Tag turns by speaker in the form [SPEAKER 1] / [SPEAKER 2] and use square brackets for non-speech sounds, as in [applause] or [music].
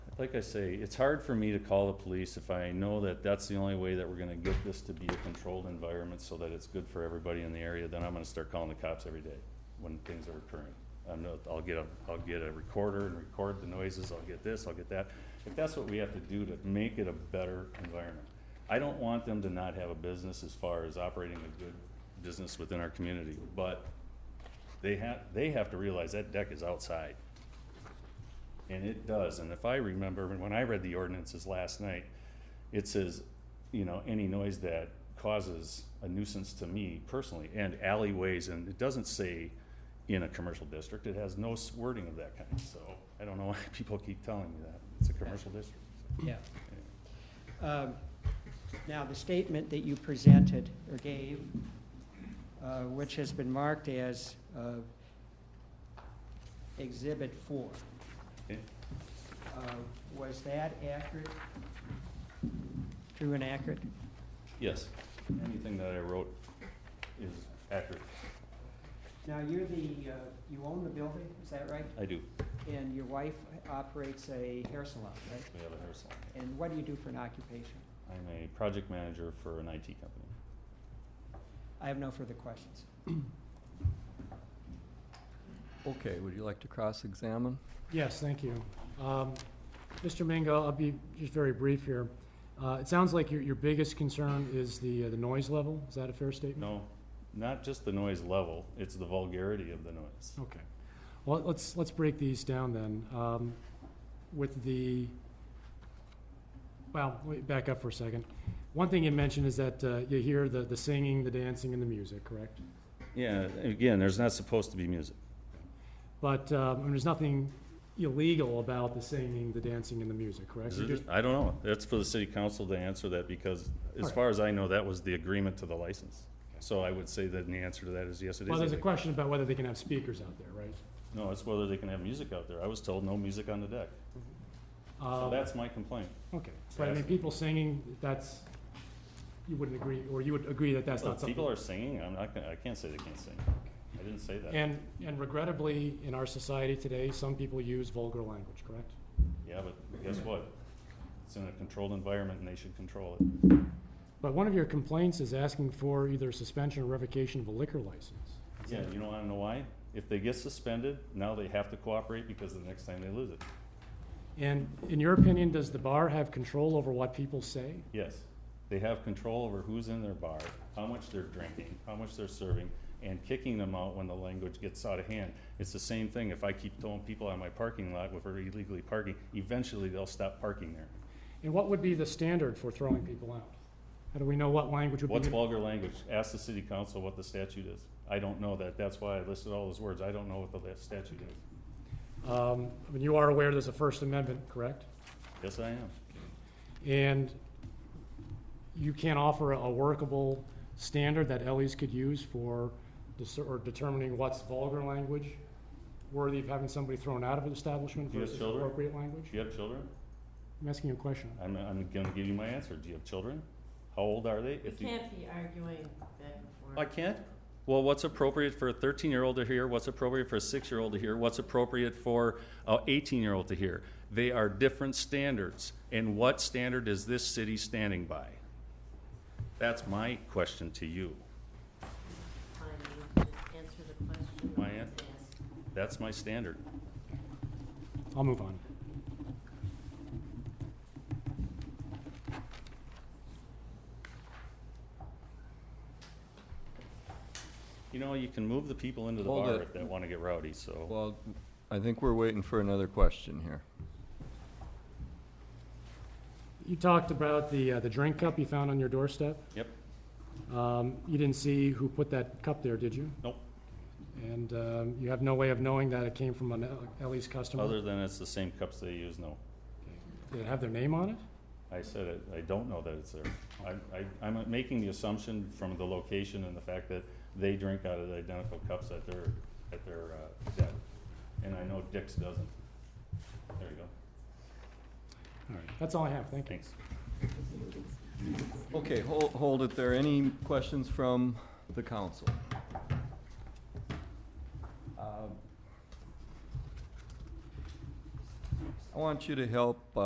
[SPEAKER 1] like I say, it's hard for me to call the police if I know that that's the only way that we're gonna get this to be a controlled environment so that it's good for everybody in the area, then I'm gonna start calling the cops every day when things are occurring. I'm not, I'll get a, I'll get a recorder and record the noises, I'll get this, I'll get that. If that's what we have to do to make it a better environment. I don't want them to not have a business as far as operating a good business within our community, but they have, they have to realize that deck is outside. And it does, and if I remember, when I read the ordinances last night, it says, you know, any noise that causes a nuisance to me personally, and alleyways, and it doesn't say in a commercial district, it has no s- wording of that kind, so I don't know [laughs] why people keep telling me that, it's a commercial district.
[SPEAKER 2] Yeah. Um, Now, the statement that you presented or gave, uh, which has been marked as uh, Exhibit 4,
[SPEAKER 1] Okay?
[SPEAKER 2] uh, was that accurate? True and accurate?
[SPEAKER 1] Yes, anything that I wrote is accurate,
[SPEAKER 2] Now, you're the, uh, you own the building, is that right?
[SPEAKER 1] I do,
[SPEAKER 2] And your wife operates a hair salon, right?
[SPEAKER 1] we have a hair salon.
[SPEAKER 2] And what do you do for an occupation?
[SPEAKER 1] I'm a project manager for an IT company.
[SPEAKER 2] I have no further questions.
[SPEAKER 3] Okay, would you like to cross-examine?
[SPEAKER 4] Yes, thank you. Um, Mr. Mingo, I'll be just very brief here. Uh, It sounds like your, your biggest concern is the, uh, the noise level. Is that a fair statement?
[SPEAKER 1] No, not just the noise level, it's the vulgarity of the noise.
[SPEAKER 4] Okay. Well, let's, let's break these down then. Um, With the, well, wait, back up for a second. One thing you mentioned is that uh, you hear the, the singing, the dancing, and the music, correct?
[SPEAKER 1] Yeah, again, there's not supposed to be music.
[SPEAKER 4] But um, there's nothing illegal about the singing, the dancing, and the music, correct?
[SPEAKER 1] Is
[SPEAKER 4] You
[SPEAKER 1] it-
[SPEAKER 4] just-
[SPEAKER 1] I don't know. That's for the city council to answer that because as
[SPEAKER 4] Alright.
[SPEAKER 1] far as I know, that was the agreement to the license. So I would say that the answer to that is yes, it is.
[SPEAKER 4] Well, there's a
[SPEAKER 1] illegal.
[SPEAKER 4] question about whether they can have speakers out there, right?
[SPEAKER 1] No, it's whether they can have music out there. I was told no music on the deck. So
[SPEAKER 4] Um,
[SPEAKER 1] that's my complaint.
[SPEAKER 4] Okay, but I mean,
[SPEAKER 1] Yes.
[SPEAKER 4] people singing, that's, you wouldn't agree, or you would agree that that's
[SPEAKER 1] Well,
[SPEAKER 4] not
[SPEAKER 1] if
[SPEAKER 4] something.
[SPEAKER 1] People are singing. I'm not, gonna- I can't say they can't sing. I didn't say that.
[SPEAKER 4] And, and regrettably, in our society today, some people use vulgar language, correct?
[SPEAKER 1] Yeah, but guess what? It's in a controlled environment and they should control it.
[SPEAKER 4] But one of your complaints is asking for either suspension or revocation of a liquor license.
[SPEAKER 1] Yeah, you don't wanna know why? If they get suspended, now they have to cooperate because the next time they lose it.
[SPEAKER 4] And in your opinion, does the bar have control over what people say?
[SPEAKER 1] Yes, they have control over who's in their bar, how much they're drinking, how much they're serving, and kicking them out when the language gets out of hand. It's the same thing, if I keep telling people on my parking lot if we're illegally parking, eventually they'll stop parking there.
[SPEAKER 4] And what would be the standard for throwing people out? How do we know what language would be?
[SPEAKER 1] What's vulgar language? Ask the city council what the statute is. I don't know that, that's why I listed all those words, I don't know what the la- statute is.
[SPEAKER 4] Um, I mean, you are aware there's a First Amendment, correct?
[SPEAKER 1] Yes, I am.
[SPEAKER 4] And you can't offer a workable standard that Ellie's could use for dis- or determining what's vulgar language worthy of having somebody thrown out of an establishment
[SPEAKER 1] Do you have
[SPEAKER 4] versus
[SPEAKER 1] children?
[SPEAKER 4] appropriate language?
[SPEAKER 1] Do you have children?
[SPEAKER 4] I'm asking you a question.
[SPEAKER 1] I'm, I'm gonna give you my answer, do you have children? How old are they?
[SPEAKER 5] You
[SPEAKER 1] If you-
[SPEAKER 5] can't be arguing back and forth.
[SPEAKER 1] I can't. Well, what's appropriate for a 13-year-old to hear? What's appropriate for a six-year-old to hear? What's appropriate for a 18-year-old to hear? They are different standards. And what standard is this city standing by? That's my question to you.
[SPEAKER 5] Fine, you just Answer the question.
[SPEAKER 1] My
[SPEAKER 5] that
[SPEAKER 1] an-
[SPEAKER 5] was asked.
[SPEAKER 1] That's my standard.
[SPEAKER 4] I'll move on.
[SPEAKER 1] You know, you can move the people into the
[SPEAKER 3] Hold
[SPEAKER 1] bar
[SPEAKER 3] it.
[SPEAKER 1] if they want to get rowdy, so.
[SPEAKER 3] Well, I think we're waiting for another question here.
[SPEAKER 4] You talked about the, uh, the drink cup you found on your doorstep.
[SPEAKER 1] Yep,
[SPEAKER 4] Um, you didn't see who put that cup there, did you?
[SPEAKER 1] nope.
[SPEAKER 4] And, um, you have no way of knowing that it came from an Ellie's customer?
[SPEAKER 1] Other than it's the same cups they use, no.
[SPEAKER 4] Did it have their name on it?
[SPEAKER 1] I said it, I don't know that it's there. I, I, I'm making the assumption from the location and the fact that they drink out of the identical cups at their, at their, uh, deck. And I know Dick's doesn't. There you go.
[SPEAKER 4] All right, that's all I have, thank you.
[SPEAKER 1] Thanks.
[SPEAKER 3] Okay, hold, hold it there. Any questions from the council? Um, I want you to help